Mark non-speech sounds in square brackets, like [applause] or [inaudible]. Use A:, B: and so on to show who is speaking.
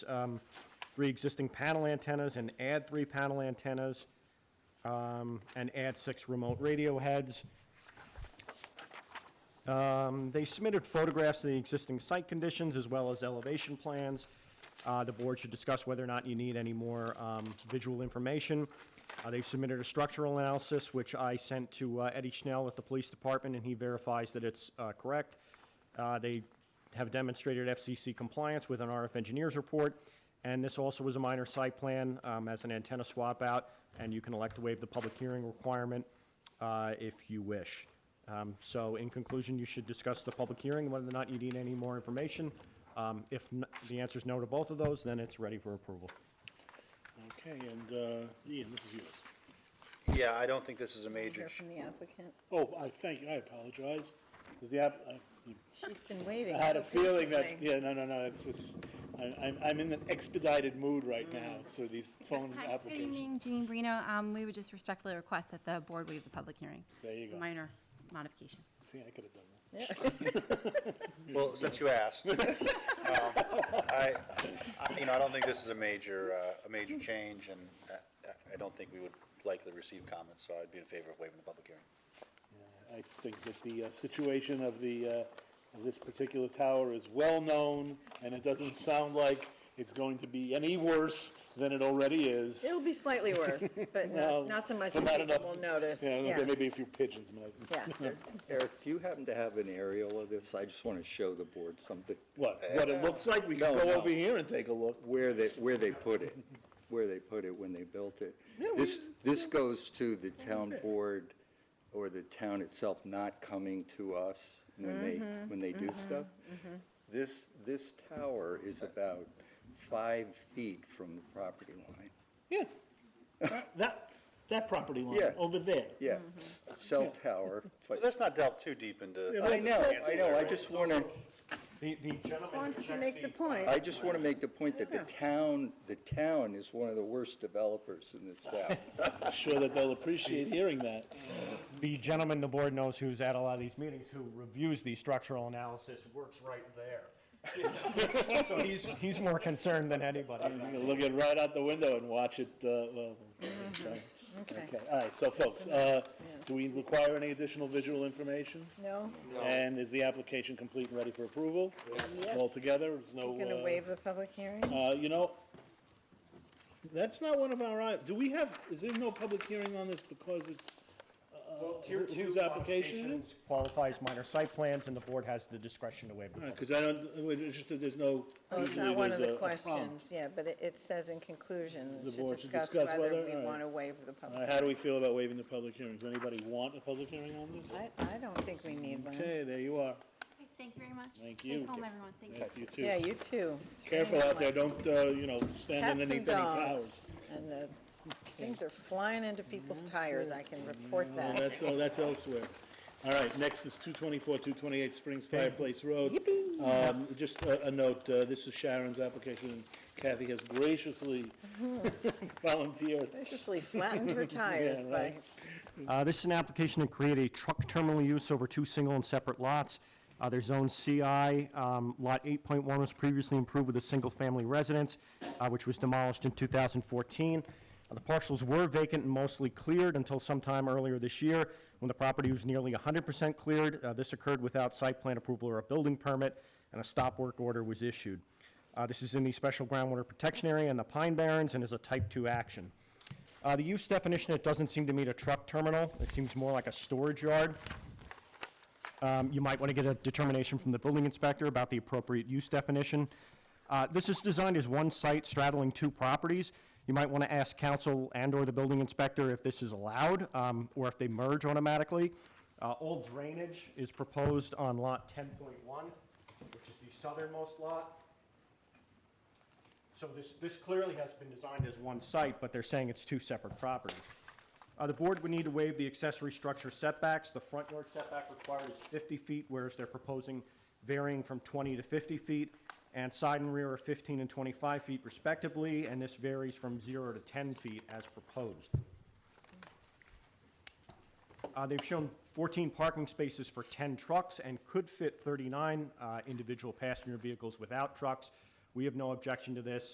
A: um, three existing panel antennas and add three panel antennas, um, and add six remote radio heads. Um, They submitted photographs of the existing site conditions as well as elevation plans. Uh, The board should discuss whether or not you need any more um, visual information. Uh, They've submitted a structural analysis, which I sent to uh, Eddie Schnell at the police department, and he verifies that it's uh, correct. Uh, They have demonstrated FCC compliance with an RF engineer's report, and this also was a minor site plan um, as an antenna swap out, and you can elect to waive the public hearing requirement uh, if you wish. Um, So in conclusion, you should discuss the public hearing, whether or not you need any more information. Um, If n- the answer is no to both of those, then it's ready for approval.
B: Okay, and uh, Ian, this is yours.
C: Yeah, I don't think this is a major,
D: Hear
C: ch-
D: from the applicant.
B: Oh, I thank you, I apologize. Does the app, I- you-
D: She's been waiting.
B: I had a feeling that,
D: patiently.
B: yeah, no, no, no, it's just, I- I'm, I'm in an expedited mood right now, so these phone
E: Hi, Good evening,
B: applications.
E: Jeanine Brino. Um, We would just respectfully request that the board waive the public hearing.
B: There you
E: It's a
B: go.
E: Minor modification.
B: See, I could have done that. [laughs]
C: well, since you asked. um, I, I- you know, I don't think this is a major, uh, a major change, and uh, I- I don't think we would likely receive comments, so I'd be in favor of waiving the public hearing.
B: Yeah, I think that the uh, situation of the, uh, of this particular tower is well-known, and it doesn't sound like it's going to be any worse than it already is.
D: It'll be slightly worse, but
B: Well,
D: not, not so much
B: but
D: that
B: not
D: people
B: enough.
D: will notice.
B: Yeah, okay,
D: Yeah,
B: maybe a few pigeons might.
D: [laughs] yeah.
F: Eric, do you happen to have an aerial of this? I just want to show the board something,
B: What, what it looks like, we can
F: Uh, No,
B: go
F: no.
B: over here and take a look.
F: where they, where they put it, where they put it when they built it. This, this goes to the town board or the town itself not coming to us when they, when they do stuff. This, this tower is about five feet from the property line.
B: Yeah. That- That, that property
F: Yeah.
B: line, over there.
F: Yeah, cell tower. but-
C: But let's not delve too deep into.
B: Yeah,
F: I know, I know, I
C: ancillary.
F: just want to.
A: The the gentleman
D: Wants to make the point.
F: I just want to make the point that the town, the town is one of the worst developers in this town.
B: I'm sure that they'll appreciate hearing that.
A: the gentleman the board knows who's at a lot of these meetings, who reviews the structural analysis, works right there. [laughs] So he's, he's more concerned than anybody.
B: I'm gonna look it right out the window and watch it, uh, well.
D: Mm-hmm.
B: okay.
D: Okay.
B: Okay, all right, so folks, uh, do we require any additional visual information?
D: No,
B: And is the application complete and ready for approval? All together, there's no.
D: you're gonna
B: uh,
D: waive the public hearing?
B: Uh, you know, that's not one of our, i- do we have, is there no public hearing on this because it's,
A: Tier
B: Wh-
A: two
B: whose application it
A: modifications Qualifies minor site plans, and the board has the discretion to waive the public.
B: because uh, I don't, we're interested, there's no.
D: Well, Oh, it's
B: usually
D: not one of
B: there's
D: the
B: a- a prompt.
D: questions, yeah, but it, it says in conclusion,
B: The
D: to
B: board should
D: discuss
B: discuss
D: whether
B: whether-
D: we
B: all right.
D: want to waive the
B: All right,
D: public.
B: Uh, how do we feel about waiving the public hearings? Anybody want a public hearing on this?
D: I, I don't think we need one.
B: Okay, there you are.
E: Okay, Thank you very much.
B: Thank
E: Stay
B: you.
E: home, everyone. Thank you.
B: Yes, you too.
D: Yeah, you too.
B: Careful out there, don't, uh, you know, stand
D: Cats
B: underneath any
D: and
B: towers.
D: dogs. And the things are flying into people's tires, I can report
B: Oh,
D: that.
B: That's, oh, that's elsewhere. All right, next is two twenty-four, two twenty-eight Springs Fireplace Road. Um, just a, a note, uh, this is Sharon's application, and Kathy has graciously [laughs] volunteered.
D: Graciously flattened her tires by
B: right.
A: Uh, This is an application to create a truck terminal use over two single and separate lots. Uh, They're zoned CI. Um, Lot 8.1 was previously improved with a single-family residence, uh, which was demolished in 2014. Uh, The parcels were vacant and mostly cleared until sometime earlier this year, when the property was nearly 100% cleared. Uh, This occurred without site plan approval or a building permit, and a stop work order was issued. Uh, This is in the Special Groundwater Protection Area in the Pine Barrens and is a Type 2 action. Uh, The use definition, it doesn't seem to meet a truck terminal. It seems more like a storage yard. Um, You might want to get a determination from the building inspector about the appropriate use definition. Uh, This is designed as one site straddling two properties. You might want to ask council and/or the building inspector if this is allowed, um, or if they merge automatically. Uh, All drainage is proposed on Lot 10.1, which is the southernmost lot. So this, this clearly has been designed as one site, but they're saying it's two separate properties. Uh, the board would need to waive the accessory structure setbacks. The front yard setback required is fifty feet, whereas they're proposing varying from twenty to fifty feet, and side and rear are fifteen and twenty-five feet respectively, and this varies from zero to ten feet as proposed. Uh, they've shown fourteen parking spaces for ten trucks and could fit thirty-nine, uh, individual passenger vehicles without trucks. We have no objection to this.